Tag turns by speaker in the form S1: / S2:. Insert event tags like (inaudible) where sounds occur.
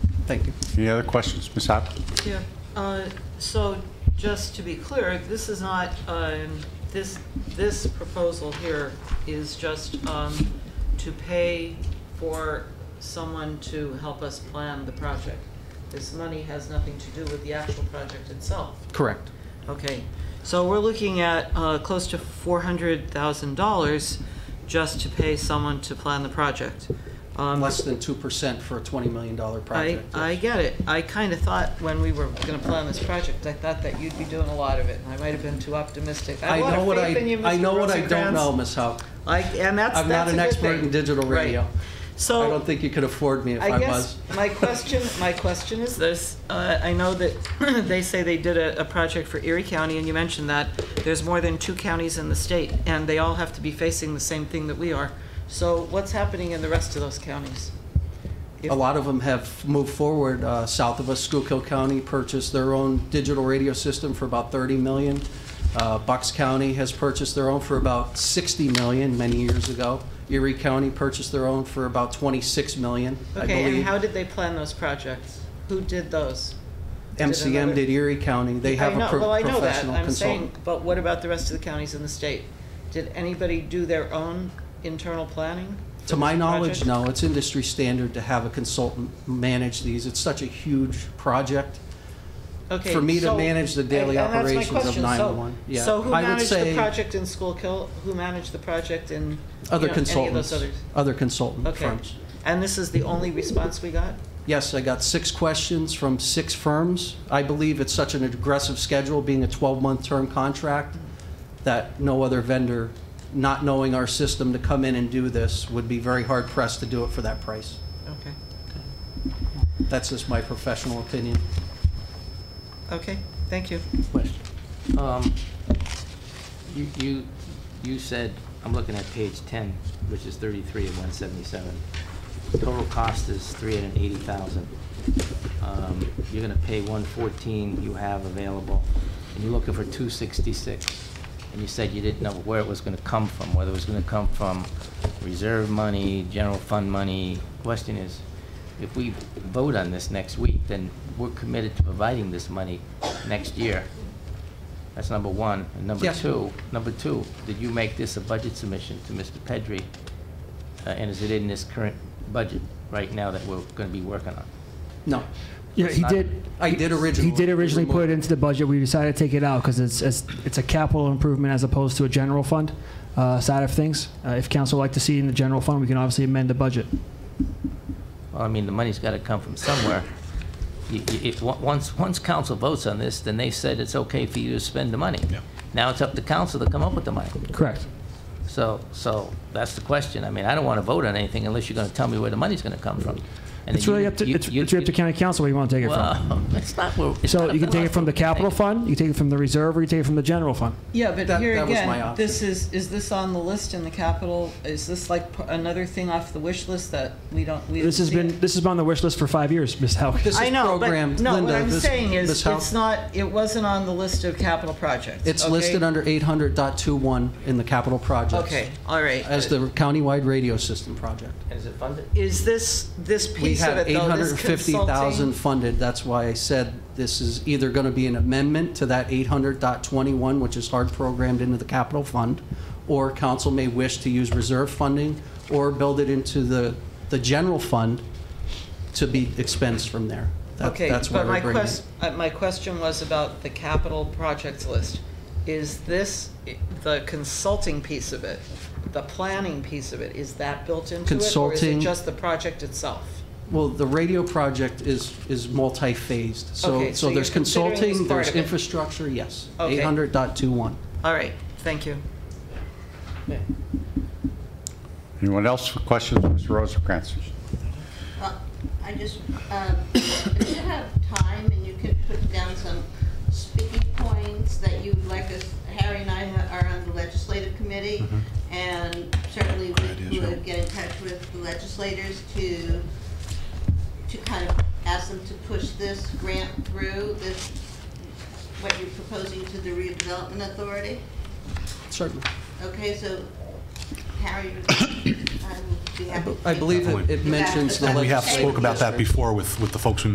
S1: Thank you.
S2: Any other questions, Ms. Hoppe?
S3: Yeah, uh, so just to be clear, this is not, um, this, this proposal here is just um, to pay for someone to help us plan the project. This money has nothing to do with the actual project itself.
S1: Correct.
S3: Okay, so we're looking at uh, close to $400,000 just to pay someone to plan the project. Um,
S1: Less than 2% for a $20 million
S3: I,
S1: project.
S3: I get it. I kind of thought when we were going to plan this project, I thought that you'd be doing a lot of it, and I might have been too optimistic. I
S1: I
S3: have a lot
S1: know
S3: of
S1: what I,
S3: faith in you,
S1: I
S3: Mr.
S1: know what I don't
S3: Rosencrantz.
S1: know, Ms. Howe.
S3: I, and that's,
S1: I'm not
S3: that's a
S1: an
S3: good
S1: expert
S3: thing.
S1: in digital
S3: Right.
S1: radio.
S3: So.
S1: I don't think you could afford me if I
S3: I
S1: was.
S3: guess my question, my question is this, uh, I know that (clears throat) they say they did a, a project for Erie County, and you mentioned that there's more than two counties in the state, and they all have to be facing the same thing that we are. So what's happening in the rest of those counties?
S1: A lot of them have moved forward. Uh, South of us, Schuylkill County purchased their own digital radio system for about 30 million. Uh, Bucks County has purchased their own for about 60 million many years ago. Erie County purchased their own for about 26 million, I
S3: Okay, and
S1: believe.
S3: how did they plan those projects? Who did those? did
S1: MCM
S3: another-
S1: did Erie County. They have
S3: I know-
S1: a pro-
S3: well, I know that.
S1: professional
S3: I'm saying,
S1: consultant.
S3: But what about the rest of the counties in the state? Did anybody do their own internal planning? for
S1: To my
S3: this
S1: knowledge,
S3: project?
S1: no. It's industry standard to have a consultant manage these. It's such a huge project.
S3: Okay,
S1: for me to
S3: so-
S1: manage the daily
S3: and- and that's my
S1: operations of
S3: question. So-
S1: 911, yeah.
S3: So who
S1: I would
S3: managed the
S1: say-
S3: project in Schuylkill? Who managed the project in, you know,
S1: Other
S3: any of
S1: consultants,
S3: those others?
S1: other consultant
S3: Okay.
S1: firms.
S3: And this is the only response we got?
S1: Yes, I got six questions from six firms. I believe it's such an aggressive schedule, being a 12-month term contract, that no other vendor, not knowing our system to come in and do this, would be very hard pressed to do it for that price.
S3: Okay,
S1: That's just my professional opinion.
S3: okay, thank you.
S4: Question. Um, You, you, you said, I'm looking at page 10, which is 33 of 177. Total cost is 380,000. Um, You're gonna pay 114 you have available, and you're looking for 266. And you said you didn't know where it was gonna come from, whether it was gonna come from reserve money, general fund money. Question is, if we vote on this next week, then we're committed to providing this money next year. That's number one. And number
S1: Yes.
S4: two, number two, did you make this a budget submission to Mr. Pedri? Uh, And is it in this current budget right now that we're going to be working on?
S1: No,
S5: Yeah,
S4: It's
S5: he
S4: not-
S5: did.
S1: I did originally.
S5: He did originally put it into the budget. We decided to take it out because it's, it's it's a capital improvement as opposed to a general fund uh, side of things. Uh, if council would like to see it in the general fund, we can obviously amend the budget.
S4: Well, I mean, the money's got to come from
S5: (laughs)
S4: somewhere. You- you- If, on- once, once council votes on this, then they've said it's okay for you to spend the money. Now it's up to council to come up with the money.
S5: Correct.
S4: So, so that's the question. I mean, I don't want to vote on anything unless you're going to tell me where the money's going to come from. And
S5: It's
S4: then
S5: really
S4: you-
S5: up to
S4: you-
S5: it's,
S4: you-
S5: it's really up to county council where you want to take it from.
S4: Well, (laughs) it's not where. it's not
S5: So
S4: up
S5: you can
S4: to
S5: take it
S4: us.
S5: from the capital fund, you can take it from the reserve, or you take it from the general fund.
S3: Yeah, but
S1: That-
S3: here
S1: that was my
S3: again,
S1: option.
S3: this is, is this on the list in the capital? Is this like p- another thing off the wish list that we don't, we
S5: This
S3: didn't
S5: has
S3: see
S5: been
S3: it?
S5: this has been on the wish list for five years, Ms. Howard.
S1: This
S3: I
S1: is
S3: know, but,
S1: programmed,
S3: no, what
S1: Linda,
S3: I'm
S1: this-
S3: saying
S1: this
S3: is,
S1: house-
S3: it's not, it wasn't on the list of capital projects.
S1: It's
S3: okay?
S1: listed under 800.21 in the capital projects.
S3: Okay, all right.
S1: As the countywide radio system project.
S4: Is it funded?
S3: Is this, this
S1: We
S3: piece of
S1: have
S3: it though, this
S1: 850,000
S3: consulting?
S1: funded, that's why I said this is either going to be an amendment to that 800.21, which is hard programmed into the capital fund, or council may wish to use reserve funding, or build it into the, the general fund to be expensed from there. That-
S3: Okay,
S1: That's why
S3: but
S1: we're
S3: my
S1: bringing it.
S3: quest, uh, my question was about the capital projects list. Is this, i- the consulting piece of it, the planning piece of it, is that built into it? Or is it
S1: Consulting-
S3: just the project itself?
S1: Well, the radio project is, is multi-phased, so,
S3: Okay, so
S1: so there's
S3: you're considering this
S1: consulting,
S3: part
S1: there's
S3: of it.
S1: infrastructure, yes.
S3: Okay.
S1: 800.21.
S3: All right, thank you.
S2: Anyone else for questions, Mr. Rosencrantz?
S6: Uh, I just, um, if you have time and you can put down some speaking points that you'd like us, Harry and I ha- are on the legislative committee, and certainly we would get in touch with the legislators to, to kind of ask them to push this grant through, this, what you're proposing to the redevelopment authority.
S1: Certainly.
S6: Okay, so Harry, (coughs) I would be happy. to
S1: I
S6: take-
S1: believe it- it mentions the
S6: And
S7: We have
S1: legislative
S7: spoke about that
S1: history.
S7: before with, with the folks we